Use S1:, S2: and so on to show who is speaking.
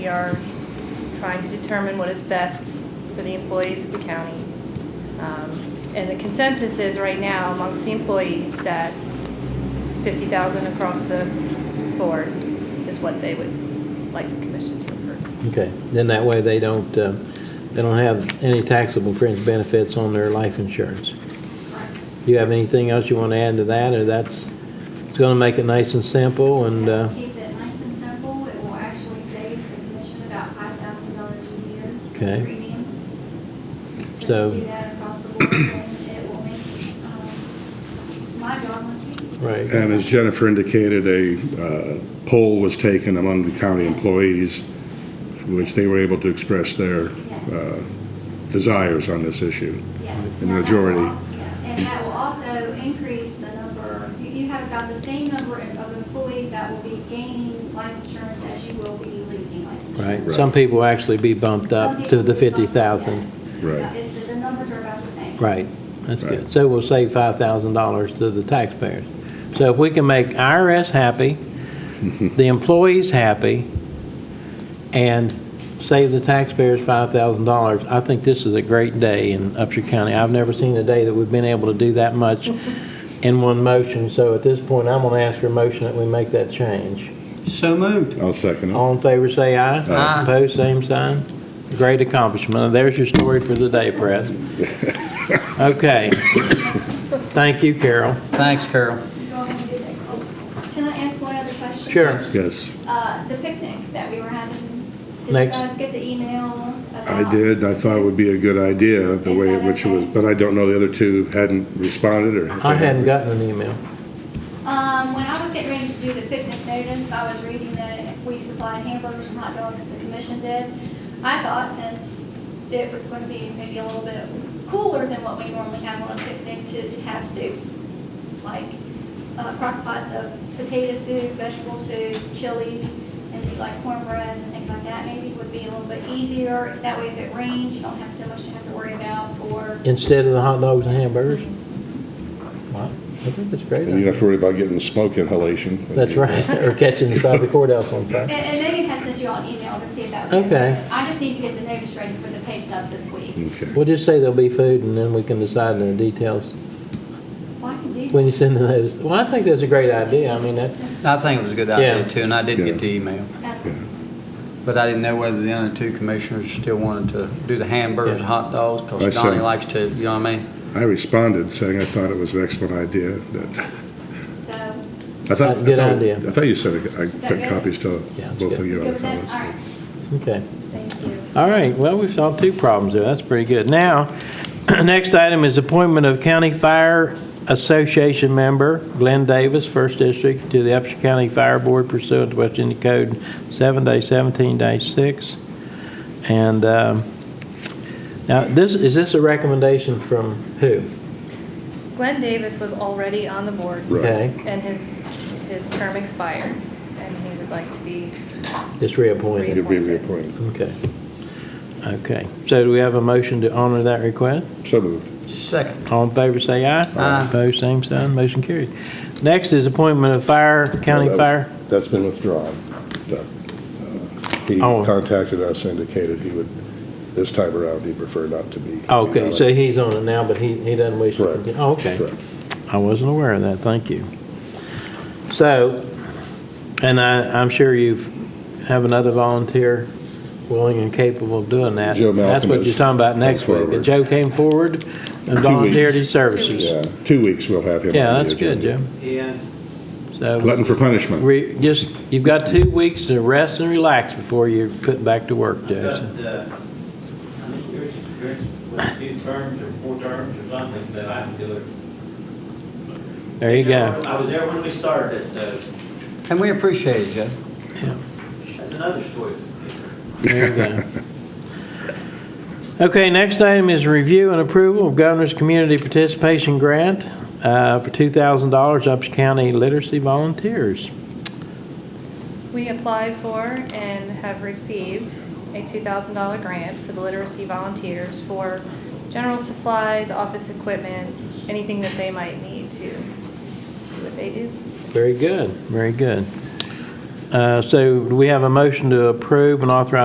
S1: We are trying to determine what is best for the employees of the county. Um, And the consensus is right now amongst the employees that 50,000 across the board is what they would like the commission to approve.
S2: Okay, then that way they don't, uh, they don't have any taxable fringe benefits on their life insurance. Do you have anything else you want to add to that, or that's, it's going to make it nice and simple and, uh,
S3: Keep it nice and simple, it will actually save the commission about five thousand dollars a year. in
S2: Okay.
S3: Premiums.
S2: So-
S3: If we do that across the board, then it will make, um, my job much easier.
S2: right,
S4: And as Jennifer indicated, a uh, poll was taken among the county employees, which they were able to express their uh, desires on this issue.
S3: Yes.
S4: In the
S3: Now, that
S4: majority.
S3: will al- yeah, And that will also increase the number, you- you have about the same number of employees that will be gaining life insurance as you will be losing life insurance.
S2: right. Some people will actually be bumped up to the 50,000.
S4: Right.
S3: It's- The numbers are about the same.
S2: Right, that's good.
S4: Right.
S2: So we'll save $5,000 to the taxpayers. So if we can make IRS happy, the employees happy, and save the taxpayers $5,000, I think this is a great day in Upshur County. I've never seen a day that we've been able to do that much in one motion. So at this point, I'm going to ask for a motion that we make that change.
S5: So moved.
S4: I'll second it.
S2: All in favor, say aye.
S5: Aye.
S2: Opposed, same sign. Great accomplishment. There's your story for the day, press. Okay. Thank you, Carol.
S5: Thanks, Carol.
S3: Can I ask one other question?
S2: Sure.
S4: Yes,
S3: Uh, the picnic that we were having, did you
S2: Next.
S3: guys get the email
S4: I
S3: about?
S4: did. I thought it would be a good idea, the way in which it was, but I don't know the other two hadn't responded or. if they
S2: I hadn't
S4: had.
S2: gotten an email.
S3: Um, when I was getting ready to do the picnic notice, I was reading that we supplied hamburgers and hot dogs, the commission did. I thought since it was going to be maybe a little bit cooler than what we normally have on a picnic to, to have soups, like uh, crock pots of potato soup, vegetable soup, chili, and do like cornbread and things like that, maybe would be a little bit easier. That way if it rains, you don't have so much to have to worry about for,
S2: Instead of the hot dogs and hamburgers? Wow, I think that's a great.
S4: And you don't
S2: idea.
S4: have to worry about getting smoke inhalation.
S2: That's right, or catching the side of the courthouse on
S3: and,
S2: fire.
S3: and Megan has sent you all an email to see if that would. be
S2: Okay.
S3: I just need to get the notice ready for the pay stubs this week.
S4: Okay.
S2: We'll just say there'll be food and then we can decide the details
S3: Well, I can do
S2: when you send the notice. Well, I think that's a great idea. I mean, that,
S5: I think it was a good idea,
S2: Yeah.
S5: too, and I did
S4: Yeah.
S5: get the email.
S3: that.
S4: Yeah.
S5: But I didn't know whether the other two commissioners still wanted to do the hamburgers and hot dogs,
S4: I
S5: because
S4: see.
S5: Donnie likes to, you know what I mean?
S4: I responded saying I thought it was an excellent idea, that,
S3: So,
S4: I thought. I
S2: Good
S4: thought-
S2: idea.
S4: I thought you said, I sent
S3: good?
S4: copies to
S2: Yeah, it's
S4: both of
S2: good.
S4: you
S3: good
S4: other
S3: with that? All
S4: fellows.
S3: right,
S2: okay.
S3: thank you.
S2: All right, well, we solved two problems there, that's pretty good. Now, next item is appointment of County Fire Association member Glenn Davis, First District, to the Upshur County Fire Board pursuant to West Virginia Code 7-17-6. And um, now, this, is this a recommendation from who?
S1: Glenn Davis was already on the board.
S4: Right.
S2: Okay,
S1: And his, his term expired, and he would like to be
S2: Just reappointed,
S4: You'll be reappointed.
S2: okay. Okay, so do we have a motion to honor that request?
S4: So moved.
S5: Second.
S2: All in favor, say aye.
S5: Aye.
S2: Opposed, same sign, motion carried. Next is appointment of fire, county
S4: Well, that was-
S2: fire.
S4: That's been withdrawn. That, uh, He
S2: Oh.
S4: contacted us, indicated he would, this time around, he'd prefer not to be.
S2: Okay, so he's on it now, but he, he doesn't wish to
S4: Correct.
S2: continue. Oh, okay.
S4: Correct.
S2: I wasn't aware of that, thank you. So, and I, I'm sure you've, have another volunteer willing and capable of doing that.
S4: Joe
S2: That's
S4: Malcolm
S2: what you're
S4: has
S2: talking about next
S4: come
S2: week. But
S4: forward.
S2: Joe came forward and
S4: Two
S2: volunteered
S4: weeks.
S2: his services.
S4: Yeah, two weeks we'll have him.
S2: Yeah,
S4: on the
S2: that's good,
S4: agenda.
S2: Joe.
S5: Yeah.
S2: So,
S4: Glutton for punishment.
S2: re, just, you've got two weeks to rest and relax before you're put back to work,
S6: I've
S2: Joe. so.
S6: got, uh, I mean, yours, yours was two terms or four terms or something, so I can do it.
S2: There you go.
S6: I was there when we started, so
S5: And we appreciate it, Joe.
S6: that's another story.
S2: There you go. Okay, next item is review and approval of Governor's Community Participation Grant uh, for $2,000 Ups County Literacy Volunteers.
S1: We applied for and have received a $2,000 grant for the literacy volunteers for general supplies, office equipment, anything that they might need to do what they do.
S2: Very good, very good. Uh, So do we have a motion to approve and authorize